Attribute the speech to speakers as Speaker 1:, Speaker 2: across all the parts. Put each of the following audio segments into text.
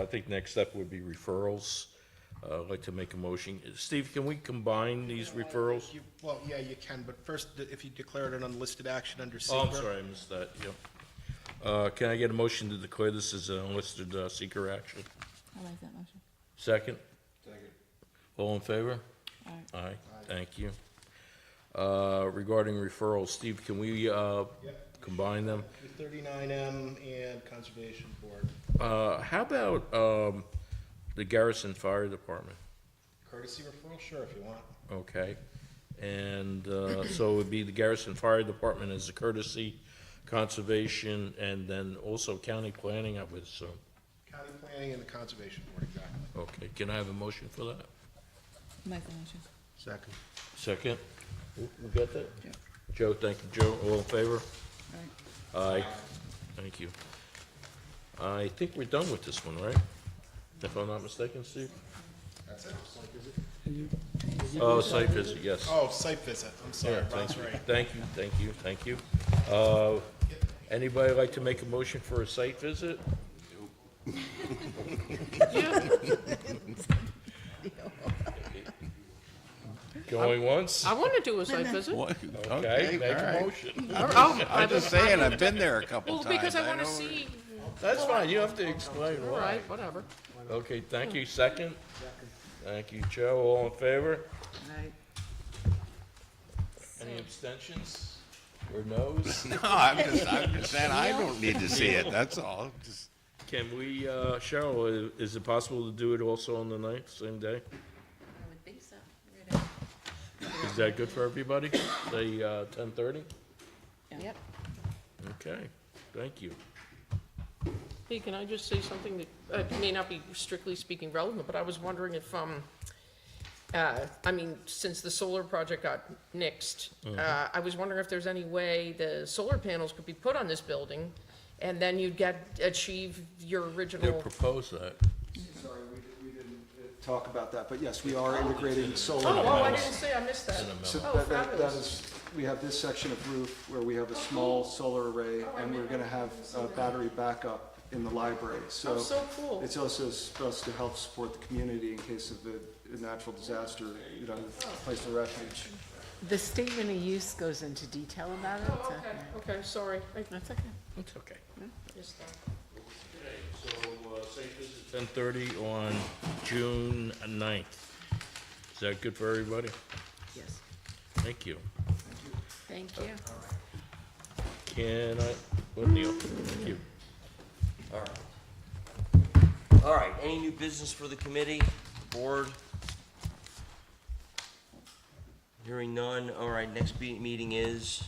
Speaker 1: I think next step would be referrals. Uh, I'd like to make a motion. Steve, can we combine these referrals?
Speaker 2: You- Well, yeah, you can, but first, if you declared an unlisted action under
Speaker 1: Oh, I'm
Speaker 2: SECR.
Speaker 1: sorry, I missed that, yeah. Uh, can I get a motion to declare this as an unlisted uh, seeker action?
Speaker 3: I like that motion.
Speaker 1: Second? Second. All in favor?
Speaker 3: All
Speaker 1: Aye,
Speaker 3: right.
Speaker 1: thank you. Uh, regarding referrals, Steve, can we, uh, combine them?
Speaker 2: Thirty-nine M and Conservation Board.
Speaker 1: Uh, how about, um, the Garrison Fire Department?
Speaker 2: Courtesy referral, sure, if you want.
Speaker 1: Okay, and uh, so it would be the Garrison Fire Department as a courtesy, conservation, and then also county planning, I would assume.
Speaker 2: County Planning and the Conservation Board, exactly.
Speaker 1: Okay, can I have a motion for that?
Speaker 3: Make the motion.
Speaker 2: Second.
Speaker 1: Second? We we got that?
Speaker 3: Yeah.
Speaker 1: Joe, thank you, Joe. All in favor?
Speaker 3: All right.
Speaker 1: Aye. Thank you. I think we're done with this one, right? If I'm not mistaken, Steve?
Speaker 2: That's it.
Speaker 1: Oh, site visit, yes.
Speaker 2: Oh, site visit, I'm sorry,
Speaker 1: Yeah,
Speaker 2: Rob's
Speaker 1: thank you,
Speaker 2: right.
Speaker 1: thank you, thank you, thank you. Uh, Anybody like to make a motion for a site visit? Going once?
Speaker 4: I want to do a site visit.
Speaker 5: What?
Speaker 1: Okay, make
Speaker 5: all
Speaker 1: a
Speaker 5: right.
Speaker 1: motion.
Speaker 4: Oh, I
Speaker 5: I'm just saying, I've been there a couple
Speaker 4: Well,
Speaker 5: times.
Speaker 4: because I want to
Speaker 5: know-
Speaker 4: see,
Speaker 1: That's fine, you have to explain
Speaker 4: all
Speaker 1: why.
Speaker 4: right, whatever.
Speaker 1: Okay, thank you, second? Thank you, Joe, all in favor? Any abstentions or no's?
Speaker 5: No, I'm just, I'm just saying, I don't need to see it, that's all. Just-
Speaker 1: Can we, uh, Cheryl, i- is it possible to do it also on the ninth, same
Speaker 6: I
Speaker 1: day?
Speaker 6: would think so.
Speaker 1: Is that good for everybody? Say, uh, ten thirty?
Speaker 6: Yep.
Speaker 1: Okay, thank you.
Speaker 4: Hey, can I just say something that uh, may not be strictly speaking relevant, but I was wondering if, um, uh, I mean, since the solar project got nixed,
Speaker 5: Mm-hmm.
Speaker 4: uh, I was wondering if there's any way the solar panels could be put on this building, and then you'd get, achieve your
Speaker 1: They
Speaker 4: original.
Speaker 1: propose that.
Speaker 7: Sorry, we didn't- we didn't uh, talk about that, but yes, we are integrating solar.
Speaker 4: Oh, oh, I
Speaker 7: panels.
Speaker 4: didn't say, I missed that.
Speaker 7: So
Speaker 4: Oh,
Speaker 7: that- that- that
Speaker 4: fabulous. Oh,
Speaker 7: is- We have this section of roof where we have a small solar array, and we're gonna have a battery backup in the library, so.
Speaker 4: Oh, so cool.
Speaker 7: It's also supposed to help support the community in case of a a natural disaster, you know,
Speaker 4: Oh.
Speaker 7: place of refuge.
Speaker 8: The statement of use goes into detail about it.
Speaker 4: Oh,
Speaker 8: so-
Speaker 4: okay, okay, sorry. I-
Speaker 8: That's okay.
Speaker 1: It's okay.
Speaker 4: missed that.
Speaker 1: So, uh, say this is ten thirty on June ninth. Is that good for everybody?
Speaker 8: Yes.
Speaker 1: Thank you.
Speaker 8: Thank you.
Speaker 1: Can I, well, Neil, thank you.
Speaker 9: All right, any new business for the committee, board? Hearing none, all right, next be- meeting is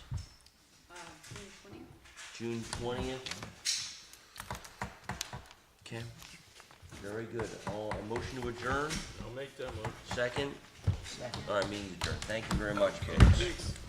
Speaker 9: June twentieth. Okay, very good. All, a motion to adjourn,
Speaker 1: I'll make that motion.
Speaker 9: second? All right, meeting adjourned. Thank you very much, folks.